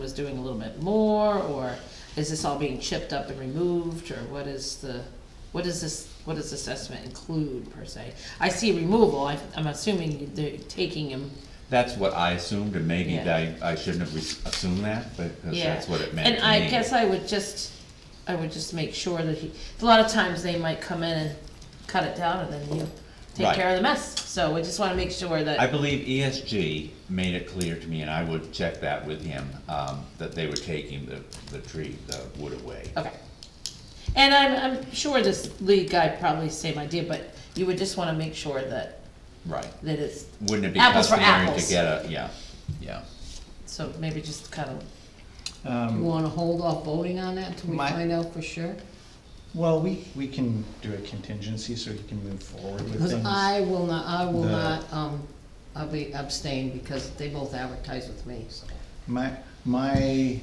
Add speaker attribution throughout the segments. Speaker 1: was doing a little bit more, or is this all being chipped up and removed, or what is the, what is this, what does this estimate include per se? I see removal, I, I'm assuming they're taking him,
Speaker 2: That's what I assumed, and maybe I,
Speaker 1: Yeah.
Speaker 2: I shouldn't have re- assumed that, but, because
Speaker 1: yeah.
Speaker 2: that's what it meant to me.
Speaker 1: And I guess I would just, I would just make sure that he, a lot of times they might come in and cut it down, and then you take
Speaker 2: Right.
Speaker 1: care of the mess, so we just wanna make sure
Speaker 2: I
Speaker 1: that,
Speaker 2: believe ESG made it clear to me, and I would check that with him, um, that they were taking the, the tree, the wood away.
Speaker 1: okay. And I'm, I'm sure this lead guy probably same idea, but you would just wanna make sure that,
Speaker 2: Right.
Speaker 1: that it's
Speaker 2: Wouldn't it be
Speaker 1: Apples for
Speaker 2: customary
Speaker 1: apples.
Speaker 2: to get a, yeah, yeah.
Speaker 1: So maybe just kind of,
Speaker 3: Um,
Speaker 4: You wanna hold off voting on that till we
Speaker 3: My-
Speaker 4: find out for sure?
Speaker 3: Well, we, we can do a contingency so he can move forward with
Speaker 4: Because
Speaker 3: things.
Speaker 4: I will not, I will
Speaker 3: The-
Speaker 4: not, um, I'll be abstain because they both advertise with me, so.
Speaker 3: My, my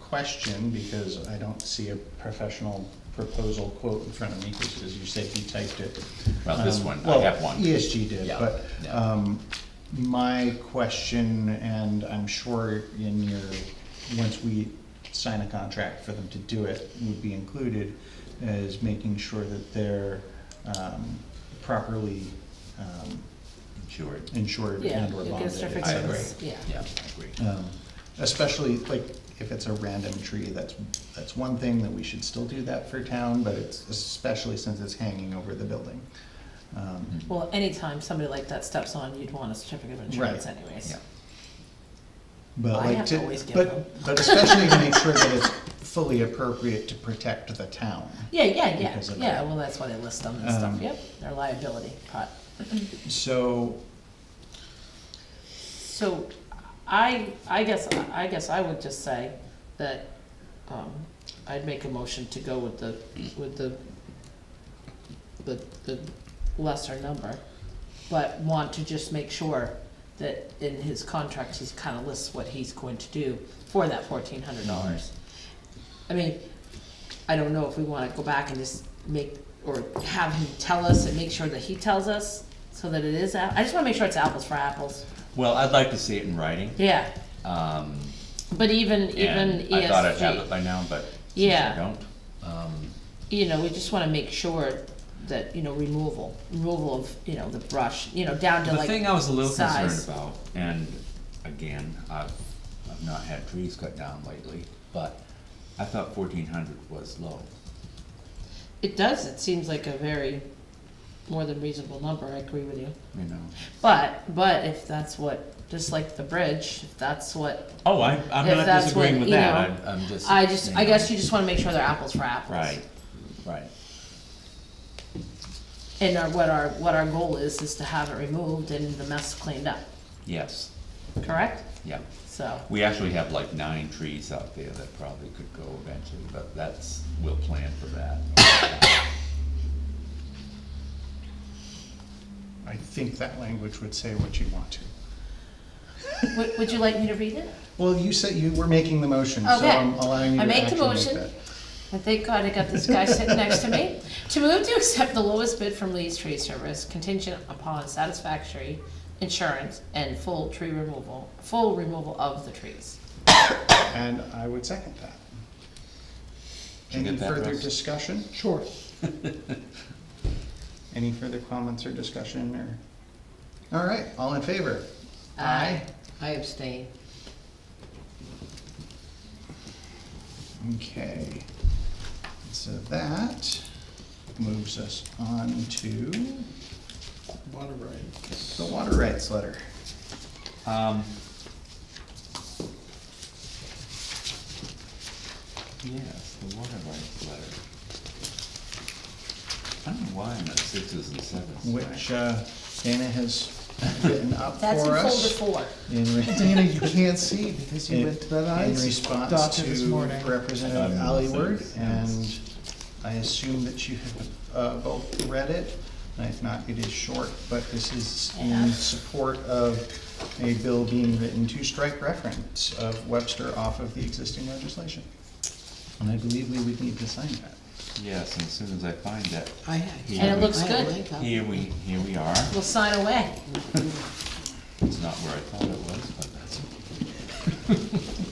Speaker 3: question, because I don't see a professional proposal quote in front of me, because as you said, you typed it.
Speaker 2: Well, this
Speaker 3: Um,
Speaker 2: one, I
Speaker 3: well,
Speaker 2: have one.
Speaker 3: ESG did,
Speaker 2: Yeah,
Speaker 3: but,
Speaker 2: yeah.
Speaker 3: um, my question, and I'm sure in your, once we sign a contract for them to do it, would be included, is making sure that they're, um, properly, um,
Speaker 2: Sure.
Speaker 3: insured
Speaker 1: yeah,
Speaker 3: and
Speaker 1: you
Speaker 3: or
Speaker 1: get a
Speaker 3: bonded, et
Speaker 1: certificate.
Speaker 2: I
Speaker 3: cetera.
Speaker 2: agree.
Speaker 1: Yeah.
Speaker 2: Yeah, I agree.
Speaker 3: Um, Especially like if it's a random tree, that's, that's one thing that we should still do that for town, but it's especially since it's hanging over the building. Um,
Speaker 2: Mm-hmm.
Speaker 1: Well, anytime somebody like that steps on, you'd want a certificate of insurance
Speaker 3: Right.
Speaker 1: anyways.
Speaker 2: Yeah.
Speaker 3: But
Speaker 1: I
Speaker 3: like
Speaker 1: have to always
Speaker 3: to,
Speaker 1: give them.
Speaker 3: but, but especially to make sure that it's fully appropriate to protect the town.
Speaker 1: Yeah, yeah, yeah,
Speaker 3: Because of
Speaker 1: yeah,
Speaker 3: that.
Speaker 1: well, that's why they list them and stuff,
Speaker 3: Um,
Speaker 1: yep, their liability part.
Speaker 3: So,
Speaker 1: So I, I guess, I guess I would just say that, um, I'd make a motion to go with the, with the, the, the lesser number, but want to just make sure that in his contract, he's kind of lists what he's going to do for that fourteen hundred dollars. I mean, I don't know if we wanna go back and just make, or have him tell us and make sure that he tells us, so that it is, a- I just wanna make sure it's apples for apples.
Speaker 2: Well, I'd like to see it in writing,
Speaker 1: Yeah,
Speaker 2: um,
Speaker 1: but even, even E
Speaker 2: and I thought I'd have it
Speaker 1: ESG,
Speaker 2: by now, but since
Speaker 1: Yeah.
Speaker 2: I don't, um,
Speaker 1: you know, we just wanna make sure that, you know, removal, removal of, you know, the brush, you know, down to
Speaker 2: The
Speaker 1: like
Speaker 2: thing I was a little concerned
Speaker 1: size.
Speaker 2: about, and again, I've, I've not had trees cut down lately, but I thought fourteen hundred was low.
Speaker 1: It does, it seems like a very, more than reasonable number, I agree with you.
Speaker 2: You know.
Speaker 1: But, but if that's what, just like the bridge, if that's what,
Speaker 2: Oh, I, I'm
Speaker 1: If
Speaker 2: not
Speaker 1: that's
Speaker 2: disagreeing
Speaker 1: what,
Speaker 2: with
Speaker 1: you
Speaker 2: that,
Speaker 1: know,
Speaker 2: I'm, I'm just.
Speaker 1: I just,
Speaker 2: you
Speaker 1: I
Speaker 2: know.
Speaker 1: guess you just wanna make sure they're apples for apples.
Speaker 2: Right, right,
Speaker 1: And our, what our, what our goal is, is to have it removed and the mess cleaned up,
Speaker 2: yes,
Speaker 1: correct?
Speaker 2: yeah.
Speaker 1: So,
Speaker 2: We actually have like nine trees out there that probably could go eventually, but that's, we'll plan for that.
Speaker 3: I think that language would say what you want to.
Speaker 1: would, would you like me to read it?
Speaker 3: Well, you said you were making the motion, so
Speaker 1: Okay.
Speaker 3: I'm allowing you
Speaker 1: I
Speaker 3: to
Speaker 1: make the
Speaker 3: actually make
Speaker 1: motion.
Speaker 3: that.
Speaker 1: And thank God I got this guy sitting next to me. To move to accept the lowest bid from Lee's Tree Service contingent upon satisfactory insurance and full tree removal, full removal of the trees.
Speaker 3: And I would second that.
Speaker 2: Did you
Speaker 3: Any
Speaker 2: get that,
Speaker 3: further
Speaker 2: Russ?
Speaker 3: discussion? Sure. Any further comments or discussion or? All right, all in favor?
Speaker 1: Aye.
Speaker 4: I abstain.
Speaker 3: Okay. So that moves us on to
Speaker 5: Water right.
Speaker 3: the water rights letter.
Speaker 2: Um, Yes, the water rights letter. I don't know why I'm at sixes and sevens.
Speaker 3: Which uh, Dana has written up for
Speaker 1: That's in folder
Speaker 3: us.
Speaker 1: four.
Speaker 3: in re-
Speaker 5: Dana, you can't see because you
Speaker 3: In-
Speaker 5: went to that eye
Speaker 3: In response
Speaker 5: doctor this
Speaker 3: to
Speaker 5: morning.
Speaker 3: Representative
Speaker 2: Um,
Speaker 3: Alliward,
Speaker 2: thanks,
Speaker 3: and
Speaker 2: yes.
Speaker 3: I assume that you have uh, both read it. And If not, it is short, but this is in
Speaker 1: Yeah.
Speaker 3: support of a bill being written to strike reference of Webster off of the existing legislation. And I believe we would need to sign that.
Speaker 2: Yes, and as soon as I find it,
Speaker 4: I have.
Speaker 2: And it
Speaker 1: looks
Speaker 4: I have
Speaker 1: good.
Speaker 4: my copy.
Speaker 2: here we, here we are.
Speaker 1: We'll sign away.
Speaker 2: It's not where I thought it was, but that's okay.